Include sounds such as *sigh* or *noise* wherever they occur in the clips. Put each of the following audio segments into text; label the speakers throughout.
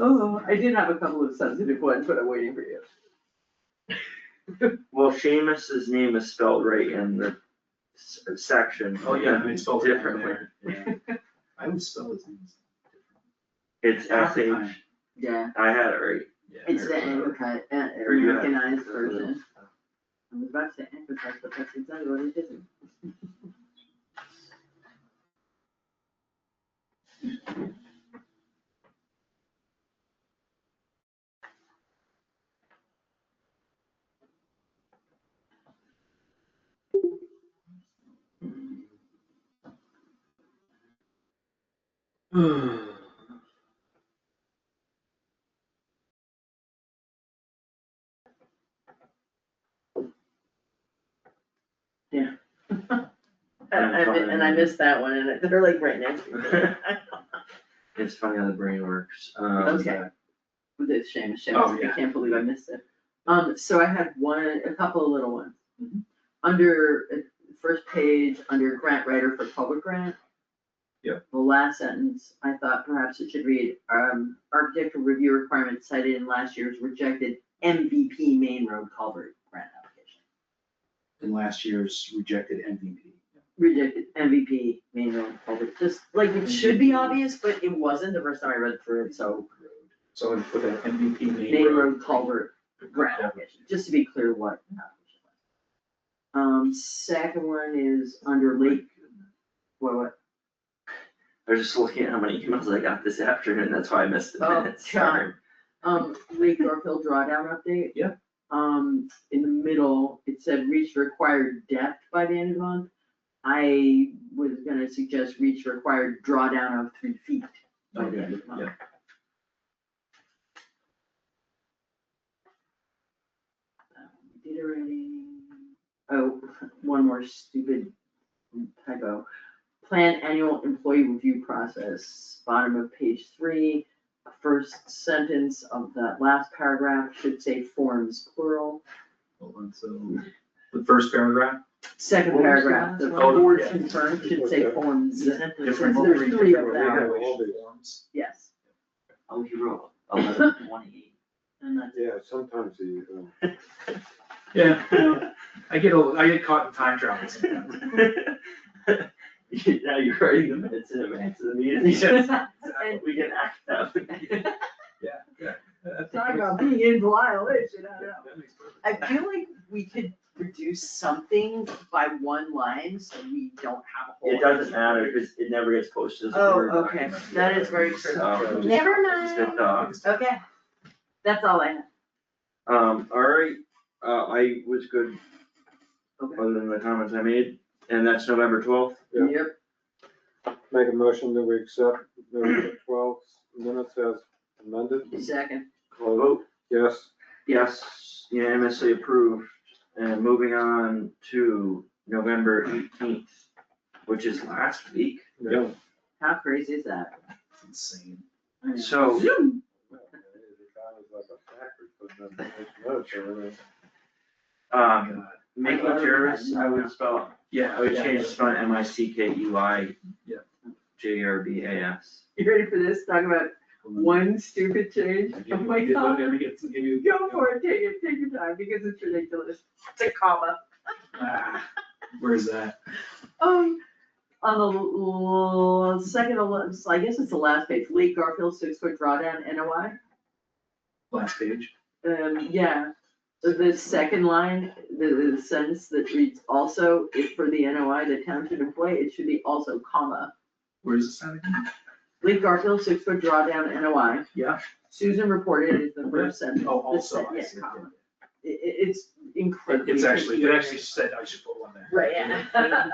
Speaker 1: Oh, I did have a couple of sensitive ones, but I'm waiting for you.
Speaker 2: Well, Seamus's name is spelled right in the s- section.
Speaker 3: Oh, yeah, I mean, it's spelled different
Speaker 2: Differently.
Speaker 3: there, yeah. I would spell his name.
Speaker 2: It's S H,
Speaker 3: Afrikaans.
Speaker 4: *laughs* Yeah,
Speaker 2: I had it right.
Speaker 3: Yeah,
Speaker 4: it's the
Speaker 3: American.
Speaker 4: Amplified, uh,
Speaker 2: Or you have-
Speaker 4: Americanized version. I was about to say Amplified, but that's exactly what it isn't.
Speaker 2: I'm
Speaker 4: And I, mi- and I
Speaker 2: fine.
Speaker 4: missed that one, and it- they're like right next to each other.
Speaker 2: *laughs* It's funny how the brain works. Um,
Speaker 4: Okay. It's a shame, it's a shame,
Speaker 3: Oh,
Speaker 4: I
Speaker 3: yeah.
Speaker 4: can't believe I missed it. Um, so I had one, a couple of little ones.
Speaker 3: Mm-hmm.
Speaker 4: Under, uh, first page, under grant writer for public grant.
Speaker 3: Yep.
Speaker 4: The last sentence, I thought perhaps it should read, um, architectural review requirements cited in last year's rejected MVP main road culvert grant application.
Speaker 3: In last year's rejected MVP.
Speaker 4: Rejected MVP main road culvert, just like it should be obvious, but it wasn't the first time I read through it, so.
Speaker 3: So I put an MVP name.
Speaker 4: main road culvert grant application, just to be clear what application was. Um, second one is under lake, what, what?
Speaker 2: I was just looking at how many emails I got this afternoon, that's why I missed the
Speaker 4: Oh,
Speaker 2: minutes.
Speaker 4: God.
Speaker 2: Sorry.
Speaker 4: Um, Lake Garfield drawdown update.
Speaker 3: Yeah.
Speaker 4: Um, in the middle, it said reach required depth by the end of the month. I was gonna suggest reach required drawdown of three feet by the end of the month.
Speaker 3: Yeah.
Speaker 4: That one we Um, Did already, oh, one more stupid typo. Plan annual employee review process, bottom of page three first sentence of that last paragraph should say forms plural.
Speaker 3: Hold on, so the first paragraph,
Speaker 4: Second
Speaker 5: What was the
Speaker 4: paragraph, the
Speaker 3: one?
Speaker 4: board
Speaker 2: Oh,
Speaker 3: Yeah.
Speaker 4: confirmed should say forms, since
Speaker 3: different.
Speaker 4: there's three of
Speaker 5: different
Speaker 4: them,
Speaker 5: wording.
Speaker 3: Forms.
Speaker 4: yes.
Speaker 2: Oh, you wrote eleven twenty-eight. *laughs*
Speaker 4: And that's
Speaker 5: Yeah, sometimes the, uh,
Speaker 3: Yeah, I get, a- I get caught in time travel sometimes.
Speaker 2: Now you're writing the minutes in advance of
Speaker 4: *laughs*
Speaker 2: the meeting, *laughs* we can act out.
Speaker 4: Talk about being in violation, I know.
Speaker 3: That makes perfect
Speaker 4: I
Speaker 3: sense.
Speaker 4: feel like we could reduce something by one line so we don't have a whole.
Speaker 2: It doesn't matter, cause it never gets posted as a
Speaker 4: Oh,
Speaker 2: Word
Speaker 4: okay.
Speaker 2: document.
Speaker 4: That is very true.
Speaker 2: So-
Speaker 4: Never
Speaker 2: It's good,
Speaker 4: mind,
Speaker 2: uh,
Speaker 4: okay, that's all I have.
Speaker 2: Um, alright, uh, I was good.
Speaker 4: Okay.
Speaker 2: Other than the comments I made, and that's November twelfth.
Speaker 5: Yeah.
Speaker 4: Yep.
Speaker 5: make a motion that we accept November twelfth minutes as amended.
Speaker 4: Second,
Speaker 2: Call vote.
Speaker 5: Yes,
Speaker 2: Yes, unanimously approved, and moving on to November eighteenth, which is last week.
Speaker 5: yeah.
Speaker 4: how crazy is that?
Speaker 3: It's insane.
Speaker 4: I know. *laughs*
Speaker 2: So-
Speaker 4: Zoom.
Speaker 2: Um,
Speaker 3: God.
Speaker 2: make it yours, I would spell,
Speaker 3: Yeah,
Speaker 2: I would
Speaker 3: yeah.
Speaker 2: change the spelling M I C K E Y.
Speaker 3: Yeah.
Speaker 2: J E R B A S.
Speaker 4: You ready for this? Talk about
Speaker 3: Hold on.
Speaker 4: one stupid change.
Speaker 3: Give
Speaker 4: Oh
Speaker 3: you-
Speaker 4: my
Speaker 3: give you-
Speaker 4: god.
Speaker 3: let me get some- give you-
Speaker 4: Go for it, take it, take your time, because it's ridiculous. It's a comma.
Speaker 3: Ah, Where's that?
Speaker 4: Um, on the l- l- second, to la- so I guess it's the last page, Lee Garfield six foot drawdown NOI.
Speaker 3: Last page.
Speaker 4: Um, yeah, the- the second line, the, the sentence that reads also, if for the NOI, the town should employ, it should be also comma.
Speaker 3: Where's the sound again?
Speaker 4: Lee Garfield six foot drawdown NOI.
Speaker 3: Yeah.
Speaker 4: Susan reported is the first sentence.
Speaker 3: Oh,
Speaker 4: the
Speaker 3: also,
Speaker 4: second
Speaker 3: I see.
Speaker 4: comma. I- i- it's incredibly.
Speaker 3: It's actually, it actually
Speaker 4: confusing.
Speaker 3: said I should put one there.
Speaker 4: Right,
Speaker 3: Yeah.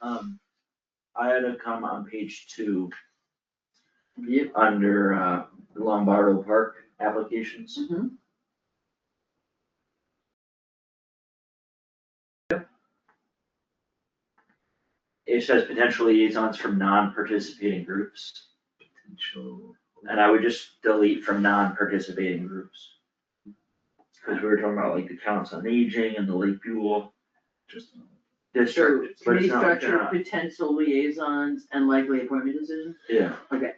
Speaker 2: Um, I had a comma on page two. Under, uh, Lombardo Park applications.
Speaker 4: *laughs* Mhm.
Speaker 2: It says potential liaisons from non-participating groups,
Speaker 3: Potential.
Speaker 2: and I would just delete from non-participating groups. Cause we were talking about like the counts on aging and the Lake Buell
Speaker 3: Just-
Speaker 4: Sure,
Speaker 2: district, but
Speaker 4: committee
Speaker 2: it's not,
Speaker 4: structure,
Speaker 2: not-
Speaker 4: potential liaisons and likely appointment decisions.
Speaker 2: yeah.
Speaker 4: Okay.